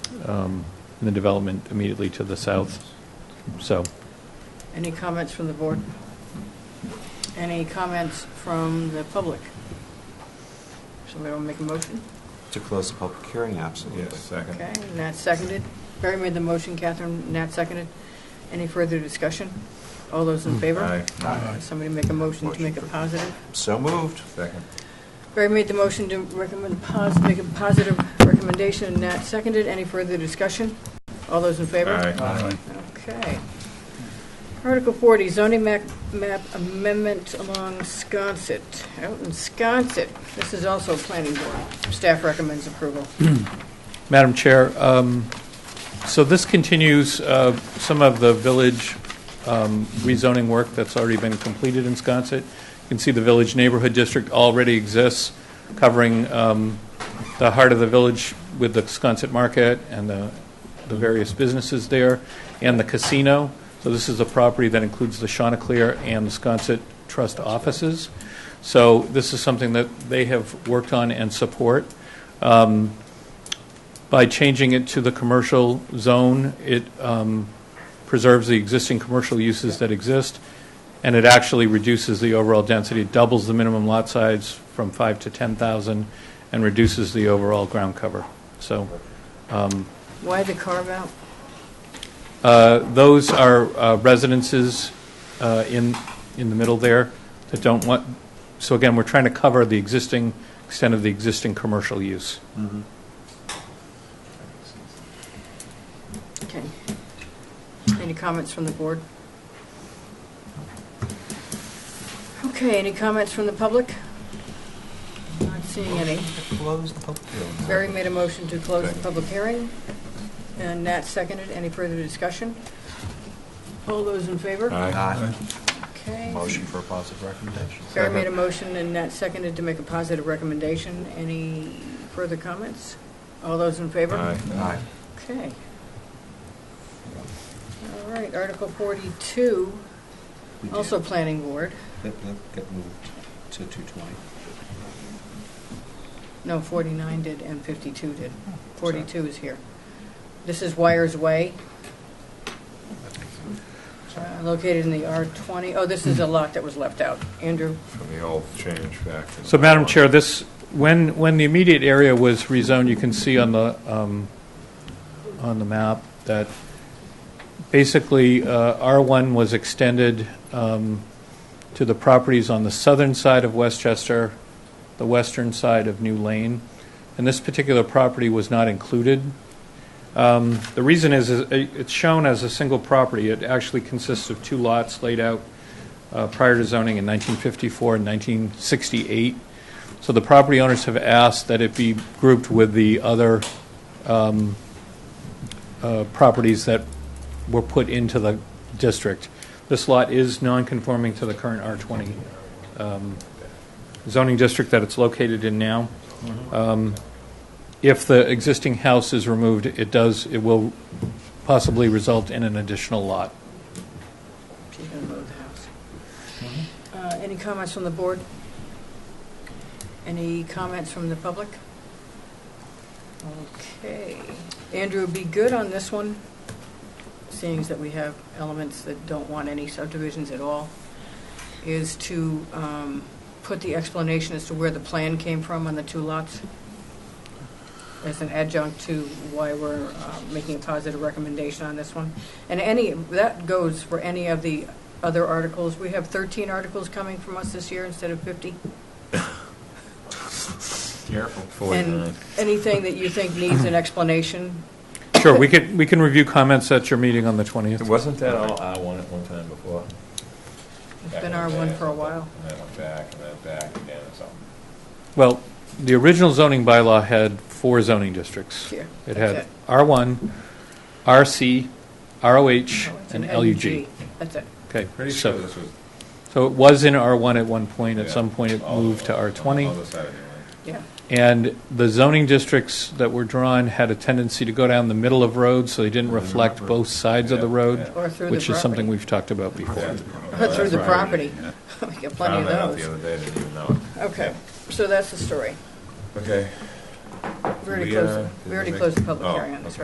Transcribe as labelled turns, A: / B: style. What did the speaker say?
A: um, and the development immediately to the south. So,
B: Any comments from the board? Any comments from the public? Somebody want to make a motion?
C: To close the public hearing, absolutely.
D: Yes, second.
B: Okay, Nat seconded. Barry made the motion, Catherine, Nat seconded. Any further discussion? All those in favor?
D: Aye.
B: Uh, Somebody make a motion to
C: Motion
B: make a
C: for-
B: positive.
C: So moved.
D: Second.
B: Barry made the motion to recommend, pos- make a positive recommendation, and Nat seconded. Any further discussion? All those in favor?
D: Aye.
B: Okay. Article 40, zoning map map amendment along Sconset, out in Sconset. This is also planning board. Staff recommends approval.
A: Madam Chair, um, so this continues uh, some of the village um, rezoning work that's already been completed in Sconset. You can see the Village Neighborhood District already exists, covering um, the heart of the village with the Sconset Market and the the various businesses there, and the casino. So this is a property that includes the Chanticleer and the Sconset Trust offices. So this is something that they have worked on and support. Um, By changing it to the commercial zone, it um, preserves the existing commercial uses that exist, and it actually reduces the overall density. It doubles the minimum lot size from 5 to 10,000 and reduces the overall ground cover. So
B: Why the carve out?
A: uh, Those are uh, residences uh, in, in the middle there that don't want, so again, we're trying to cover the existing, extent of the existing commercial use.
B: Okay. Any comments from the board? Okay, any comments from the public? Not seeing any.
C: To close the public hearing.
B: Barry made a motion to close the
D: Second.
B: public hearing, and Nat seconded. Any further discussion? All those in favor?
C: Aye.
B: Okay.
C: Motion for a positive recommendation.
B: Barry made a motion and Nat seconded to make a positive recommendation. Any further comments? All those in favor?
D: Aye.
C: Aye.
B: Okay. All right, Article 42,
C: We did.
B: also Planning Board,
C: Yep, yep, get moved to 220.
B: no, 49 did and 52 did.
C: sorry.
B: 42 is here. This is Wires Way, uh, located in the R20, oh, this is a lot that was left out. Andrew,
D: From the old change back. to the
A: So Madam
D: old.
A: Chair, this, when, when the immediate area was rezoned, you can see on the, um, on the map that basically uh, R1 was extended um, to the properties on the southern side of Westchester, the western side of New Lane, and this particular property was not included. Um, The reason is, is it- it's shown as a single property. It actually consists of two lots laid out uh, prior to zoning in 1954 and 1968. So the property owners have asked that it be grouped with the other um, uh, properties that were put into the district. This lot is non-conforming to the current R20 um, zoning district that it's located in now. Um, If the existing house is removed, it does, it will possibly result in an additional lot.
B: she's going to move the house. Uh, Any comments from the board? Any comments from the public? Okay. Andrew, be good on this one, seeing as that we have elements that don't want any subdivisions at all, is to um, put the explanation as to where the plan came from on the two lots as an adjunct to why we're uh, making a positive recommendation on this one. And any, that goes for any of the other articles. We have 13 articles coming from us this year instead of 50.
C: Careful.
D: Oh,
B: And anything that you think needs an explanation,
A: Sure, we can, we can review comments at your meeting on the 20th.
D: Wasn't that all I won at one time before?
B: it's been our one for a while.
D: And then went back, and then back again, so.
A: Well, the original zoning bylaw had four zoning districts.
B: Yeah,
A: It
B: that's
A: had
B: it.
A: R1, RC,
B: Oh,
A: ROH,
B: it's
A: and
B: an
A: LUG.
B: That's it.
A: Okay,
D: Pretty sure
A: so,
D: this was.
A: so it was in R1 at one point, at
D: yeah,
A: some point it
D: all
A: moved to
D: on the
A: R20.
D: other side of the line.
B: Yeah.
A: And the zoning districts that were drawn had a tendency to go down the middle of roads, so they didn't reflect both sides of the
D: Yeah,
A: road,
B: Or through the property.
A: which is something we've talked about before.
D: Yeah.
B: Through the
D: Right.
B: property.
D: Yeah.
B: We got plenty of
D: Found that out the
B: those.
D: other day, didn't even know
B: Okay, so that's the story.
D: it. Okay.
B: We already
D: We, uh,
B: closed,
D: did
B: we
D: we
B: already
D: make-
B: closed the public
D: oh,
B: hearing on this,
D: okay.
B: right?